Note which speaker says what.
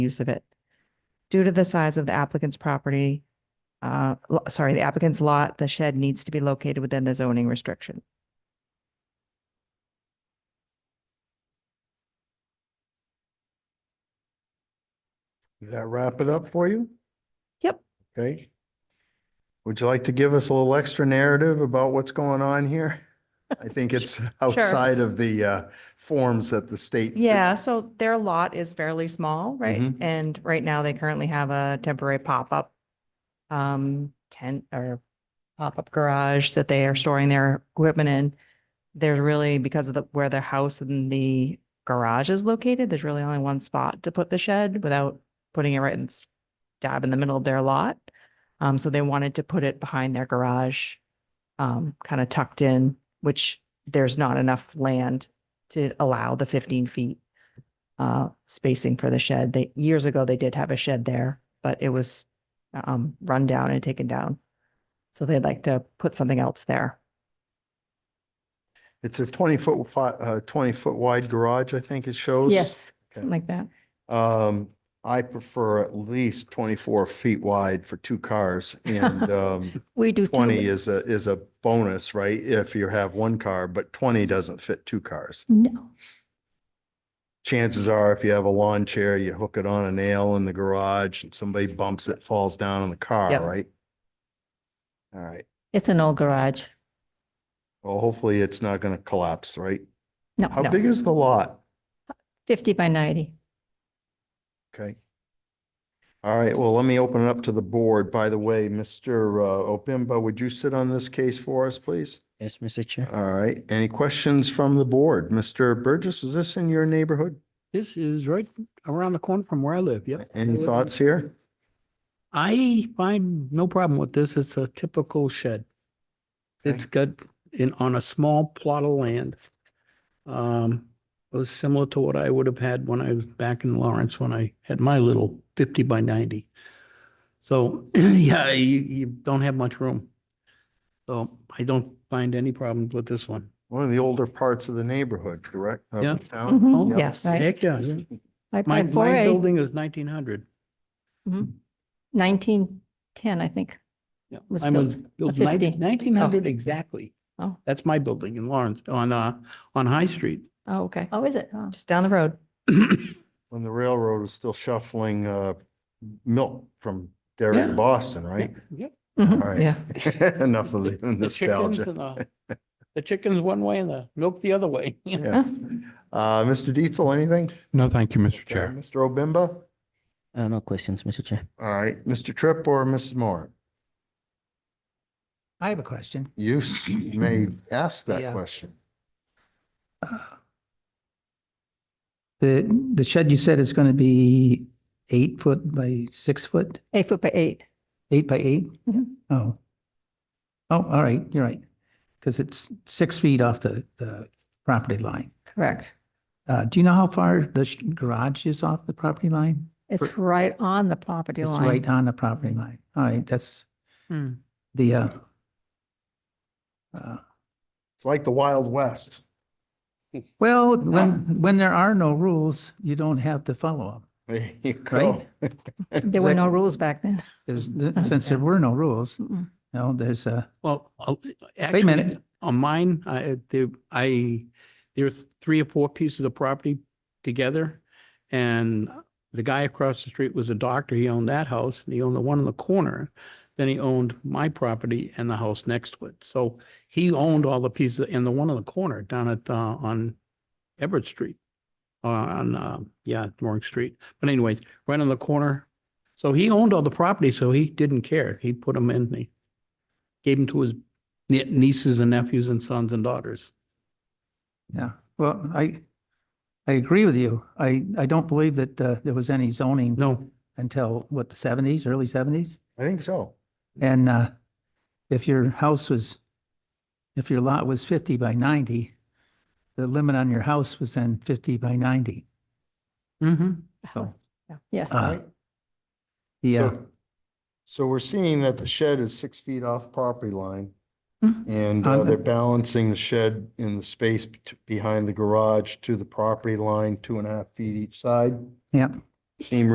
Speaker 1: use of it. Due to the size of the applicant's property, uh, lo- sorry, the applicant's lot, the shed needs to be located within the zoning restriction.
Speaker 2: Does that wrap it up for you?
Speaker 1: Yep.
Speaker 2: Okay. Would you like to give us a little extra narrative about what's going on here? I think it's outside of the uh, forms that the state.
Speaker 1: Yeah, so their lot is fairly small, right?
Speaker 2: Mhm.
Speaker 1: And right now they currently have a temporary pop-up um, tent or pop-up garage that they are storing their equipment in. There's really, because of the, where their house and the garage is located, there's really only one spot to put the shed without putting it right in s- dab in the middle of their lot. Um, so they wanted to put it behind their garage, um, kind of tucked in, which there's not enough land to allow the fifteen feet uh, spacing for the shed. They, years ago, they did have a shed there, but it was um, run down and taken down. So they'd like to put something else there.
Speaker 2: It's a twenty foot, fi- uh, twenty foot wide garage, I think it shows.
Speaker 1: Something like that.
Speaker 2: Um, I prefer at least twenty-four feet wide for two cars and, um,
Speaker 3: We do. too.
Speaker 2: twenty is a, is a bonus, right? If you have one car, but twenty doesn't fit two cars.
Speaker 3: No,
Speaker 2: chances are if you have a lawn chair, you hook it on a nail in the garage and somebody bumps it, falls down on the car,
Speaker 1: Yep.
Speaker 2: right? All right.
Speaker 3: it's an old garage.
Speaker 2: Well, hopefully it's not going to collapse, right?
Speaker 3: No,
Speaker 2: How
Speaker 1: no.
Speaker 2: big is the lot?
Speaker 3: Fifty by ninety.
Speaker 2: Okay. All right. Well, let me open it up to the board. By the way, Mr. uh, Opimba, would you sit on this case for us, please?
Speaker 4: Yes, Mr. Chair.
Speaker 2: All right. Any questions from the board? Mr. Burgess, is this in your neighborhood?
Speaker 5: This is right around the corner from where I live, yep.
Speaker 2: Any thoughts here?
Speaker 5: I find no problem with this. It's a typical shed. It's got in, on a small plot of land. Um, it was similar to what I would have had when I was back in Lawrence, when I had my little fifty by ninety. So, yeah, you, you don't have much room. So I don't find any problems with this one.
Speaker 2: One of the older parts of the neighborhood, correct? Of
Speaker 5: Yeah.
Speaker 2: town?
Speaker 3: Mhm.
Speaker 2: Yep.
Speaker 1: Yes.
Speaker 3: Right.
Speaker 5: Heck, yeah.
Speaker 3: Five
Speaker 5: My,
Speaker 3: by four
Speaker 5: my
Speaker 3: A,
Speaker 5: building is nineteen hundred.
Speaker 3: nineteen ten, I think.
Speaker 5: Yeah,
Speaker 3: was
Speaker 5: I'm
Speaker 3: built-
Speaker 5: in build
Speaker 3: 50.
Speaker 5: nineteen hundred exactly.
Speaker 3: Oh.
Speaker 5: That's my building in Lawrence, on, uh, on High Street.
Speaker 1: Oh, okay.
Speaker 3: Oh, is it? Oh.
Speaker 1: Just down the road.
Speaker 2: when the railroad was still shuffling uh milk from Derry to
Speaker 5: Yeah.
Speaker 2: Boston, right?
Speaker 5: Yep.
Speaker 2: All
Speaker 3: Mhm.
Speaker 2: right.
Speaker 1: Yeah.
Speaker 2: Enough of the
Speaker 5: The chickens
Speaker 2: nostalgia.
Speaker 5: and the- The chickens one way and the milk the other way.
Speaker 2: Yeah. Uh, Mr. Dietzel, anything?
Speaker 6: No, thank you, Mr.
Speaker 2: Okay,
Speaker 6: Chair.
Speaker 2: Mr. Obimba?
Speaker 4: Uh, no questions, Mr. Chair.
Speaker 2: All right, Mr. Tripp or Mrs. Moore?
Speaker 7: I have a question.
Speaker 2: You s- may ask that
Speaker 7: Yeah.
Speaker 2: question.
Speaker 7: The, the shed you said is going to be eight foot by six foot,
Speaker 3: Eight foot by eight.
Speaker 7: eight by eight?
Speaker 3: Mhm.
Speaker 7: Oh. Oh, all right, you're right. Because it's six feet off the, the property line.
Speaker 3: Correct.
Speaker 7: Uh, do you know how far the sh- garage is off the property line?
Speaker 3: It's right on the property
Speaker 7: It's
Speaker 3: line.
Speaker 7: right on the property line. All right, that's
Speaker 5: Hmm.
Speaker 7: the, uh, uh,
Speaker 2: It's like the Wild West.
Speaker 7: well, when, when there are no rules, you don't have to follow them.
Speaker 2: There you go.
Speaker 3: There were no rules back then.
Speaker 7: There's, since there were no rules, no, there's a.
Speaker 5: Well, I'll-
Speaker 7: Wait a
Speaker 5: actually,
Speaker 7: minute.
Speaker 5: on mine, I, there, I, there are three or four pieces of property together. And the guy across the street was a doctor. He owned that house and he owned the one in the corner. Then he owned my property and the house next to it. So he owned all the pieces and the one in the corner down at, uh, on Everett Street. uh, On, uh, yeah, Mooring Street. But anyways, right on the corner. So he owned all the property, so he didn't care. He put them in, he gave them to his nie- nieces and nephews and sons and daughters.
Speaker 7: Yeah, well, I, I agree with you. I, I don't believe that uh, there was any zoning
Speaker 5: No,
Speaker 7: until, what, the seventies, early seventies?
Speaker 2: I think so.
Speaker 7: And uh, if your house was, if your lot was fifty by ninety, the limit on your house was then fifty by ninety.
Speaker 5: mm-hmm.
Speaker 7: So,
Speaker 3: Yes.
Speaker 7: uh,
Speaker 2: Right.
Speaker 7: yeah,
Speaker 2: So- So we're seeing that the shed is six feet off property line.
Speaker 3: Mhm.
Speaker 2: And uh,
Speaker 7: On the-
Speaker 2: they're balancing the shed in the space bet- behind the garage to the property line, two and a half feet each side.
Speaker 7: yeah.
Speaker 2: Seem